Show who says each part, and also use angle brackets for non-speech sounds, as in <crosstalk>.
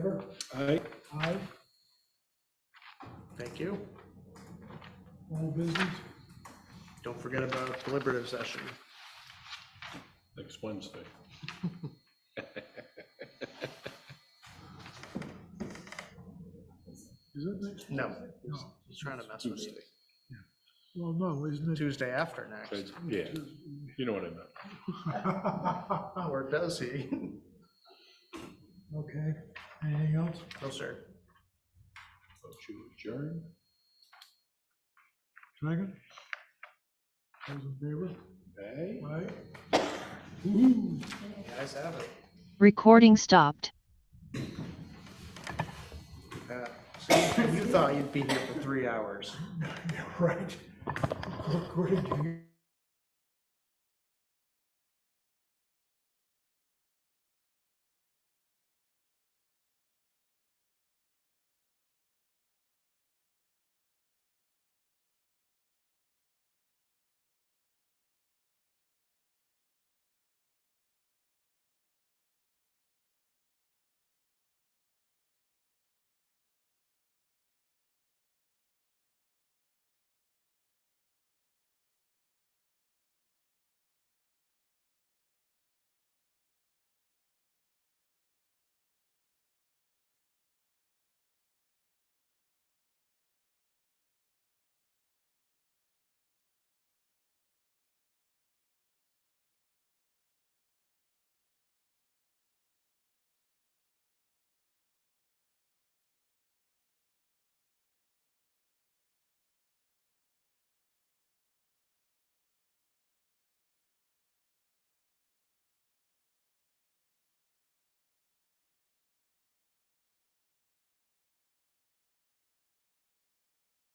Speaker 1: favor?
Speaker 2: Aye.
Speaker 1: Aye.
Speaker 3: Thank you.
Speaker 1: All business?
Speaker 3: Don't forget about deliberative session.
Speaker 2: Next Wednesday.
Speaker 1: <laughs> Is it next?
Speaker 3: No, he's- he's trying to mess with you.
Speaker 1: Well, no, isn't it?
Speaker 3: Tuesday after next,
Speaker 2: Yeah, you know what I meant.
Speaker 3: or does he?
Speaker 1: <laughs> Okay, anything else?
Speaker 3: <laughs> No, sir.
Speaker 2: Motion to adjourn?
Speaker 1: Second? Those in favor? Aye.
Speaker 2: Aye.
Speaker 1: Woo-hoo.
Speaker 3: You guys have it.
Speaker 4: Recording stopped.
Speaker 3: Yeah.
Speaker 1: <laughs>
Speaker 3: See, You thought you'd be here for three hours.
Speaker 1: Right. According to you.